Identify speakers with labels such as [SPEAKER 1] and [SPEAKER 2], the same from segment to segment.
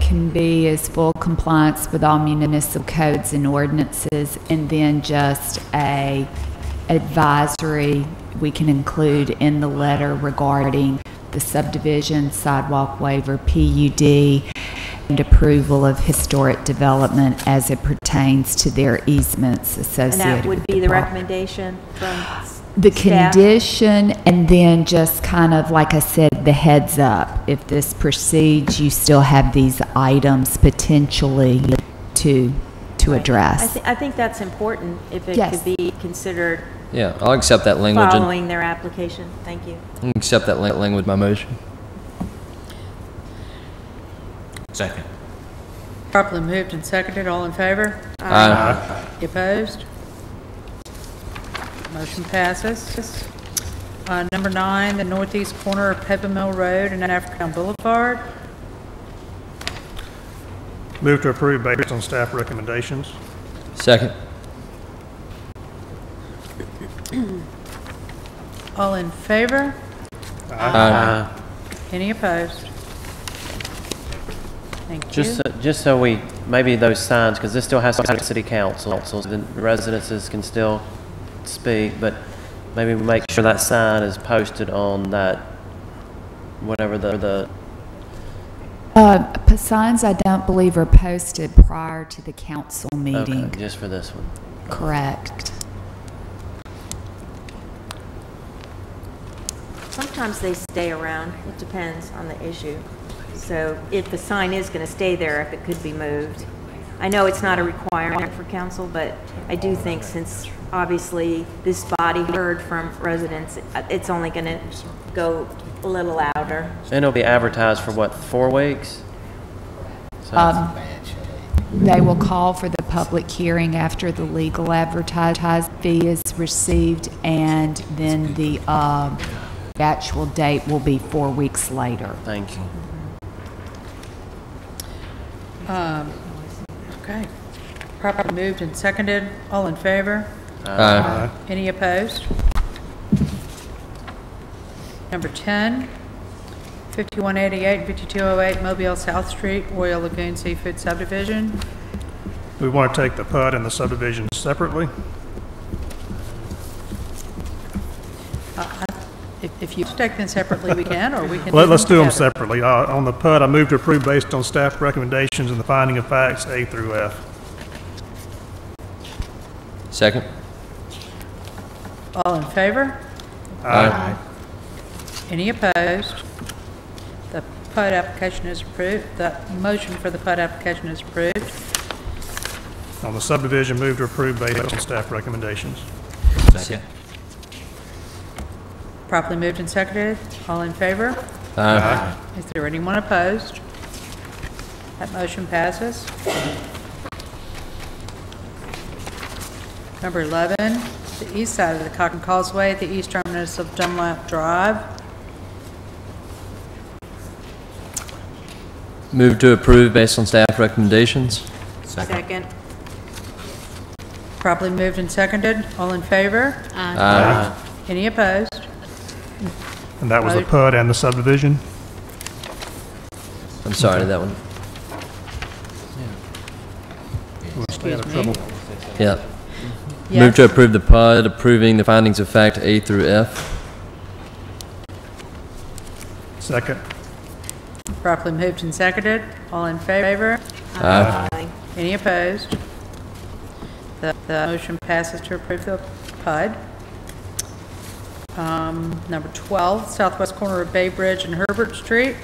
[SPEAKER 1] can be is full compliance with all municipal codes and ordinances, and then just a advisory we can include in the letter regarding the subdivision, sidewalk waiver, PUD, and approval of historic development as it pertains to their easements
[SPEAKER 2] And that
[SPEAKER 1] associated
[SPEAKER 2] would
[SPEAKER 1] with
[SPEAKER 2] be the
[SPEAKER 1] property.
[SPEAKER 2] recommendation from
[SPEAKER 1] The
[SPEAKER 2] staff?
[SPEAKER 1] condition, and then just kind of, like I said, the heads up. If this proceeds, you still have these items potentially to, to
[SPEAKER 2] I
[SPEAKER 1] address.
[SPEAKER 2] thi- I think that's important, if it
[SPEAKER 1] Yes.
[SPEAKER 2] could be considered
[SPEAKER 3] Yeah, I'll accept that language. and-
[SPEAKER 2] following their application. Thank you.
[SPEAKER 3] I'll Accept that la- language, my motion.
[SPEAKER 4] Second.
[SPEAKER 5] Properly moved and seconded, all in favor?
[SPEAKER 3] Aye.
[SPEAKER 5] You Opposed? Motion passes. Uh, Number nine, the northeast corner of Peppermill Road and Africtown Boulevard.
[SPEAKER 6] Move to approve based on staff recommendations.
[SPEAKER 3] Second.
[SPEAKER 5] All in favor?
[SPEAKER 3] Aye.
[SPEAKER 5] Any opposed? Thank you.
[SPEAKER 7] Just, so- just so we, maybe those signs, because this still has to go to city council, so the residences can still speak, but maybe we make sure that sign is posted on that, whatever the, the,
[SPEAKER 1] Uh, p- Signs I don't believe are posted prior to the council
[SPEAKER 7] okay,
[SPEAKER 1] meeting.
[SPEAKER 7] just for this one.
[SPEAKER 1] Correct.
[SPEAKER 2] Sometimes they stay around, it depends on the issue. So if the sign is going to stay there, if it could be moved. I know it's not a requirement for council, but I do think since obviously this body heard from residents, uh, it's only going to go a little louder.
[SPEAKER 7] And it'll be advertised for what, four weeks? So-
[SPEAKER 1] Um, They will call for the public hearing after the legal advertised fee is received, and then the um, actual date will be four weeks later.
[SPEAKER 7] Thank you.
[SPEAKER 5] Um, Okay. Properly moved and seconded, all in favor?
[SPEAKER 3] Aye.
[SPEAKER 5] Any opposed? Number 10, 5188 and 5208 Mobile South Street, Royal Lagoon Seafood Subdivision.
[SPEAKER 6] We want to take the PUD and the subdivision separately.
[SPEAKER 5] If if you take them separately, we can, or we can...
[SPEAKER 6] Let- Let's do them
[SPEAKER 5] together.
[SPEAKER 6] separately. Uh, On the PUD, I move to approve based on staff recommendations and the finding of facts A through F.
[SPEAKER 3] Second.
[SPEAKER 5] All in favor?
[SPEAKER 3] Aye.
[SPEAKER 5] Any opposed? The PUD application is approved. The motion for the PUD application is approved.
[SPEAKER 6] On the subdivision, move to approve based on staff recommendations.
[SPEAKER 4] Second.
[SPEAKER 5] Properly moved and seconded. All in favor?
[SPEAKER 3] Aye.
[SPEAKER 5] Is there anyone opposed? That motion passes. Number 11, the east side of the Cotton Causeway, the east terminus of Dunlap Drive.
[SPEAKER 3] Move to approve based on staff recommendations.
[SPEAKER 4] Second.
[SPEAKER 5] Properly moved and seconded. All in favor?
[SPEAKER 3] Aye.
[SPEAKER 5] Any opposed?
[SPEAKER 6] And that was the
[SPEAKER 5] Aye.
[SPEAKER 6] PUD and the subdivision.
[SPEAKER 3] I'm sorry, that one.
[SPEAKER 5] Excuse me.
[SPEAKER 3] Yeah. Move
[SPEAKER 5] Yes.
[SPEAKER 3] to approve the PUD, approving the findings of fact A through F.
[SPEAKER 6] Second.
[SPEAKER 5] Properly moved and seconded. All in favor?
[SPEAKER 3] Aye.
[SPEAKER 5] Any opposed? The, the motion passes to approve the PUD. Um, number 12, southwest corner of Bay Bridge and Herbert Street,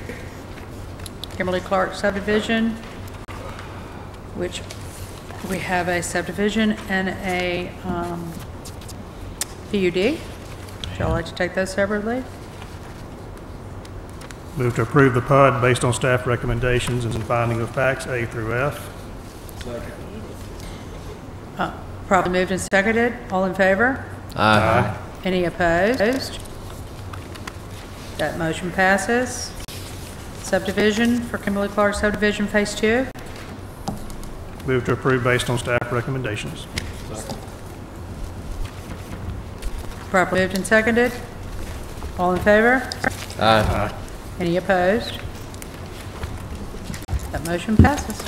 [SPEAKER 5] Kimberly Clark subdivision, which we have a subdivision and a, um, PUD. Would y'all like to take those separately?
[SPEAKER 6] Move to approve the PUD based on staff recommendations and the finding of facts A through F.
[SPEAKER 5] Probably moved and seconded. All in favor?
[SPEAKER 3] Aye.
[SPEAKER 5] Any opposed? That motion passes. Subdivision for Kimberly Clark subdivision, Phase 2.
[SPEAKER 6] Move to approve based on staff recommendations.
[SPEAKER 5] Properly moved and seconded. All in favor?
[SPEAKER 3] Aye.
[SPEAKER 5] Any opposed? That That motion passes.